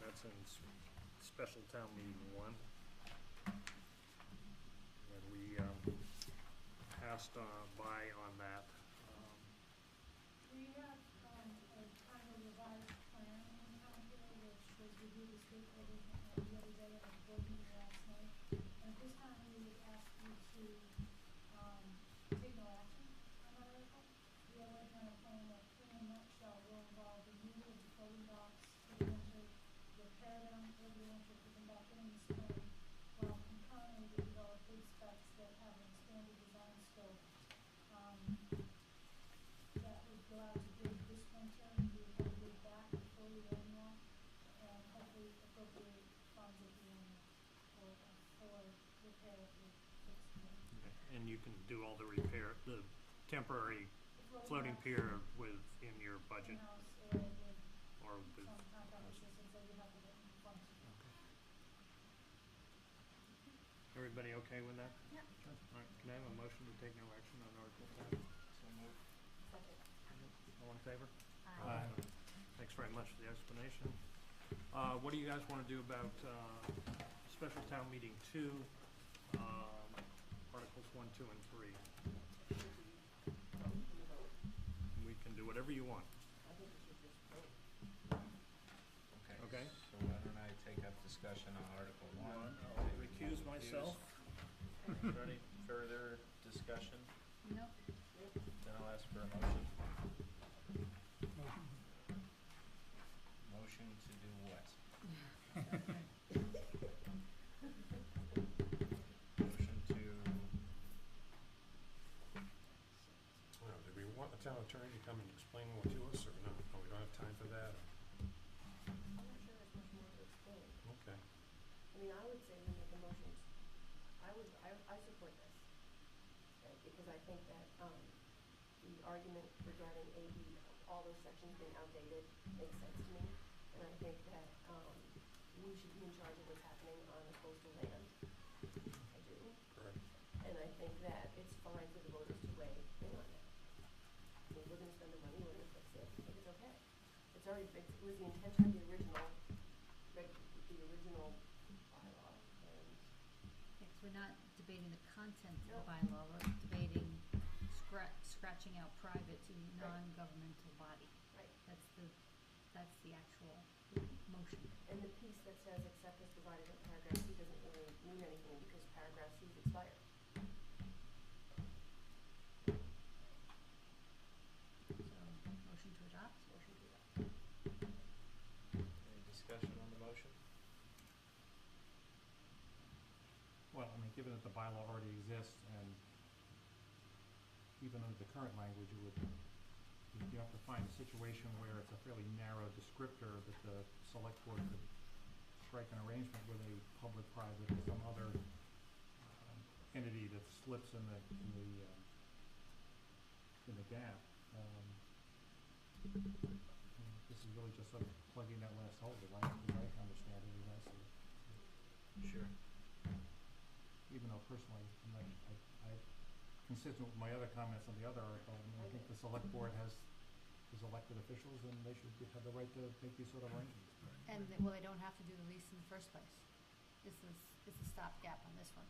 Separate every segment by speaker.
Speaker 1: That's in s- special town meeting one. And we um, passed on by on that. Um,
Speaker 2: We have um, a kind of revised plan in town here, which was reviewed as good for the uh, the other day at the board meeting last night. And at this time, we would ask you to um, take no action on that article. We are working on a plan that in a nutshell will involve removal of the floating docks for the winter, repair them for the winter, put them back in the spring, while concurrently we develop big specs that have an expanded design scope. Um, that would go out to bid this winter, and we would have a bid back before the end now, and hopefully appropriate funds at the end for, for repair of the fixed wing.
Speaker 1: And you can do all the repair, the temporary
Speaker 2: The
Speaker 1: floating
Speaker 2: house
Speaker 1: pier with, in your budget
Speaker 2: In-house area with
Speaker 1: or with,
Speaker 2: some contract assistance that we have to get from funds.
Speaker 1: everybody okay with that?
Speaker 2: Yeah.
Speaker 1: Sure. All right, can I have a motion to take no action on Article ten? All in favor?
Speaker 3: Aye.
Speaker 1: Thanks very much for the explanation. Uh, what do you guys wanna do about, uh, special town meeting two, um, Articles one, two, and three? We can do whatever you want, okay?
Speaker 3: So why don't I take up discussion on Article One?
Speaker 1: I'll recuse myself.
Speaker 3: Is there any further discussion?
Speaker 4: Nope.
Speaker 3: Then I'll ask for a motion. Motion to do what? Motion to,
Speaker 5: Well, do we want the town attorney to come and explain more to us, or no? No, we don't have time for that?
Speaker 6: I'm not sure there's much more to explain.
Speaker 5: Okay.
Speaker 6: I mean, I would say we make a motion. I would, I, I support this. right, Because I think that, um, the argument regarding AB, all those sections being outdated, makes sense to me. And I think that, um, we should be in charge of what's happening on the coastal land. I do.
Speaker 5: Correct.
Speaker 6: And I think that it's fine for the voters to weigh in on it. I mean, we're gonna spend the money, we're gonna fix it, I think it's okay. It's already, fixed. it was the intention of the original, reg, the original bylaw, and
Speaker 4: Yeah, 'cause we're not debating the content of the
Speaker 6: Nope.
Speaker 4: bylaw, we're debating scra- scratching out private to non-governmental body.
Speaker 6: Right.
Speaker 4: That's the, that's the actual motion.
Speaker 6: And the piece that says except as provided in paragraph C doesn't really mean anything because paragraph C is expired.
Speaker 4: So, motion to adopt?
Speaker 6: Motion to adopt.
Speaker 3: any discussion on the motion?
Speaker 7: Well, I mean, given that the bylaw already exists and even under the current language, you would, you have to find a situation where it's a fairly narrow descriptor that the select board could strike an arrangement with a public, private, or some other um, entity that slips in the, in the, um, in the gap. Um, I mean, This is really just sort of plugging that last hole, the language, the right understanding, the rest of it
Speaker 3: Sure.
Speaker 7: even though personally, I'm not, I, I, consistent with my other comments on the other article, I mean, I think the select board has, is elected officials and they should be- have the right to make these sort of arrangements.
Speaker 4: And, they- well, they don't have to do the lease in the first place. This is, it's a stopgap on this one.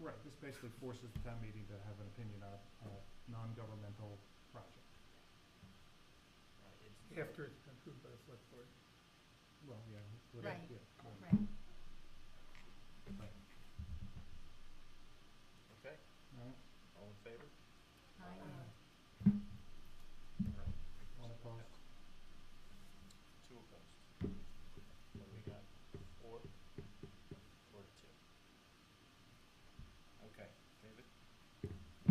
Speaker 7: Right, this basically forces the town meeting to have an opinion on a non-governmental project.
Speaker 3: Right, Uh, it's-
Speaker 8: After it's been approved by the select board.
Speaker 7: Well, yeah. would I-
Speaker 4: Right,
Speaker 7: yeah, cool.
Speaker 4: right.
Speaker 3: Okay,
Speaker 7: All right,
Speaker 3: all in favor?
Speaker 4: Aye.
Speaker 7: all opposed?
Speaker 3: Two opposed. What do we got? Four? Four to two. Okay, David?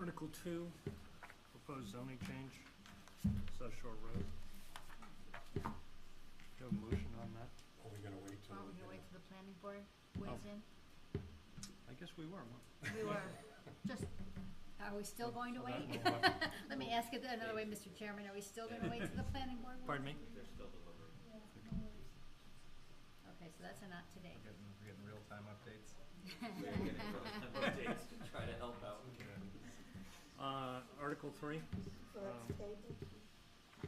Speaker 1: Article two, proposed zoning change, South Shore Road. Do you have a motion on that?
Speaker 5: Are we gonna wait till?
Speaker 4: Aren't we
Speaker 5: you
Speaker 4: gonna wait
Speaker 5: know-
Speaker 4: till the planning board
Speaker 7: Oh.
Speaker 4: weighs in?
Speaker 1: I guess we were, weren't
Speaker 4: We were, just, are we still going to
Speaker 7: Oh, So that
Speaker 4: wait?
Speaker 7: will have-
Speaker 4: Let me ask it another way, Mr. Chairman, are we still gonna wait till the planning board?
Speaker 1: we? Pardon me?
Speaker 2: Yeah, no worries.
Speaker 4: Okay, so that's a not today.
Speaker 3: We're getting, we're getting real-time updates.
Speaker 1: Uh, Article three,
Speaker 7: Uh,
Speaker 6: So that's
Speaker 1: Um,
Speaker 6: tabled?